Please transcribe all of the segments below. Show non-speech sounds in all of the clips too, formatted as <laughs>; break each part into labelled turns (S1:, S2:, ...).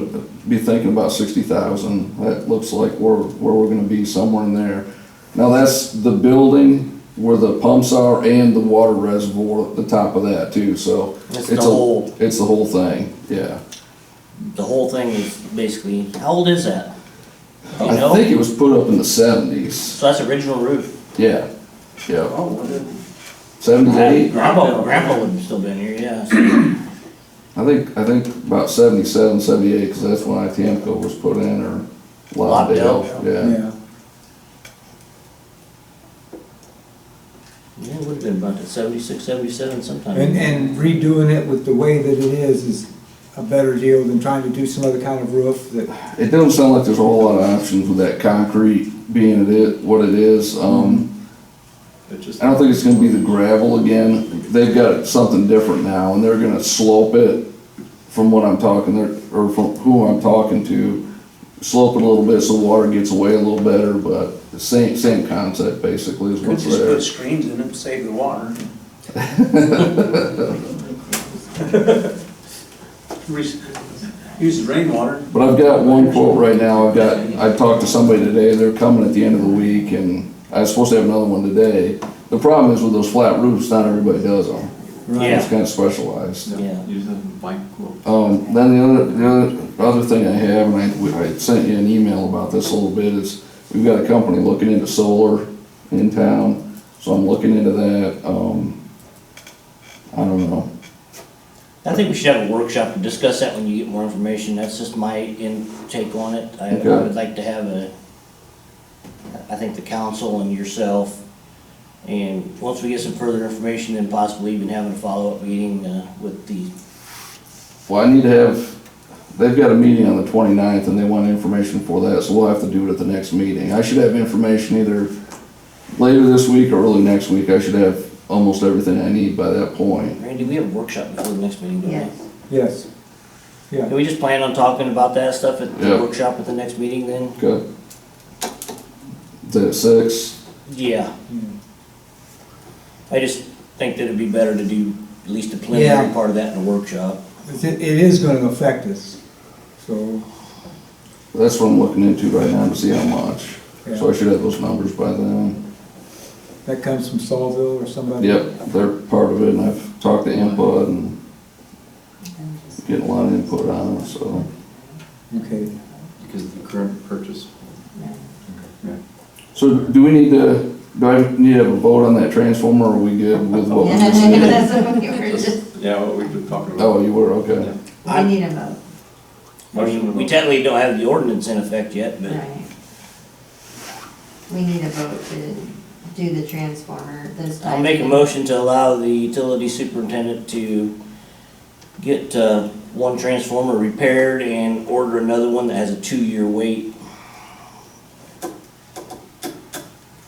S1: be thinking about sixty thousand. That looks like where, where we're gonna be somewhere in there. Now, that's the building where the pumps are and the water reservoir at the top of that too, so.
S2: It's
S1: a-
S2: the whole,
S1: It's the whole thing, yeah.
S2: the whole thing is basically, how old is that? Do you
S1: I think
S2: know?
S1: it was put up in the seventies,
S2: So that's original roof.
S1: yeah, yeah,
S3: Oh, what did-
S1: seventy-eight.
S2: Grandpa, grandpa would have still been here, yeah. so-
S1: <clears throat> I think, I think about 77, 78, cause that's when ITMCO was put in or Lawndale,
S2: Lawndale.
S1: yeah.
S3: yeah.
S2: Yeah, it would have been about the seventy-six, seventy-seven sometime.
S3: And, and redoing it with the way that it is is a better deal than trying to do some other kind of roof that,
S1: It doesn't sound like there's a whole lot of options with that concrete being it is, what it is, um,
S4: It just,
S1: I don't think it's gonna be the gravel again. They've got something different now and they're gonna slope it from what I'm talking, there- or from who I'm talking to. Slope it a little bit so water gets away a little better, but the same, same concept basically is
S5: Could
S1: what's
S5: just
S1: there.
S5: put screens in them, save the water. Re- Use the rainwater.
S1: But I've got one quote right now, I've got, I talked to somebody today, they're coming at the end of the week, and I was supposed to have another one today. The problem is with those flat roofs, not everybody does them.
S2: Yeah.
S1: It's kinda specialized.
S2: Yeah.
S4: use a bike quilt.
S1: Um, then the other, the other, other thing I have, and I, we- I sent you an email about this a little bit, is we've got a company looking into solar in town, so I'm looking into that, um, I don't know.
S2: I think we should have a workshop to discuss that when you get more information. That's just my intake on it. I I
S1: Okay.
S2: would like to have a, I think the council and yourself, and once we get some further information, then possibly even having a follow-up meeting uh, with the,
S1: Well, I need to have, they've got a meeting on the 29th and they want information for that, so we'll have to do it at the next meeting. I should have information either later this week or early next week. I should have almost everything I need by that point.
S2: Randy, we have a workshop before the next meeting, don't we?
S6: Yes.
S3: yes. Yeah,
S2: Can we just plan on talking about that stuff at the
S1: Yeah.
S2: workshop at the next meeting then?
S1: Okay? Is that at six?
S2: Yeah. I just think that it'd be better to do at least the
S3: Yeah.
S2: preliminary part of that in a workshop.
S3: it, it is gonna affect us, so,
S1: That's what I'm looking into right now to see how much. So I
S3: yeah.
S1: should have those numbers by then.
S3: That comes from Saulville or somebody?
S1: Yep, they're part of it and I've talked to input and getting a lot of input on it, so.
S3: Okay,
S4: Because of the current purchase.
S1: So do we need to, do I need to have a vote on that transformer, or are we good with what we just did?
S6: <laughs> That's what we were just-
S4: Yeah, what we've been talking about.
S1: Oh, you were, okay.
S6: We need a vote,
S2: I mean, we technically don't have the ordinance in effect yet, but
S6: right? We need a vote to do the transformer this time.
S2: I'll make a motion to allow the utility superintendent to get, uh, one transformer repaired and order another one that has a two-year wait.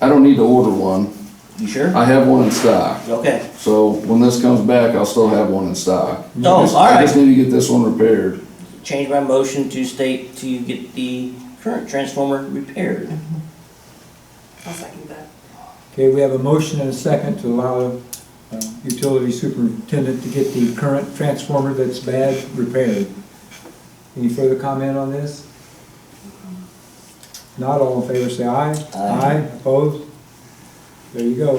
S1: I don't need to order one,
S2: You sure?
S1: I have one in stock,
S2: Okay.
S1: so when this comes back, I'll still have one in stock.
S2: No,
S1: I just-
S2: Oh, all
S1: I just
S2: right.
S1: need to get this one repaired.
S2: Change my motion to state to get the current transformer repaired.
S6: I'll second that.
S3: okay, we have a motion and a second to allow uh, utility superintendent to get the current transformer that's bad repaired. Any further comment on this? Not all in favor, say aye.
S2: Aye.
S3: opposed? There you go.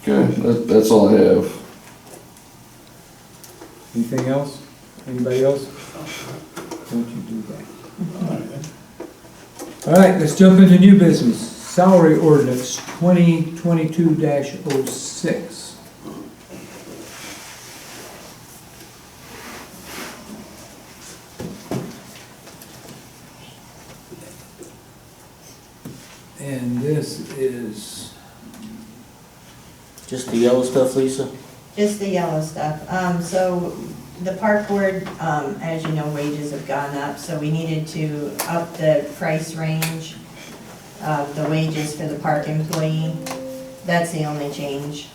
S1: Okay, that, that's all I have.
S3: Anything else? Anybody else? Don't you do that. All right, let's jump into new business. Salary ordinance twenty twenty-two oh 6 And this is,
S2: Just the yellow stuff, Lisa?
S6: Just the yellow stuff. Um, so the park board, um, as you know, wages have gone up, so we needed to up the price range of the wages for the park employee. That's the only change.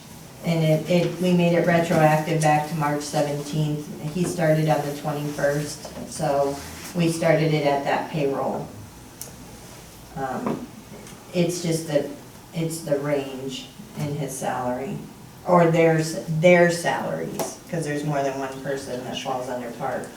S6: And it, it, we made it retroactive back to March seventeenth. He started on the twenty-first, so we started it at that payroll. Um, It's just the, it's the range in his salary or their, their salaries, because there's more than one person that falls under park.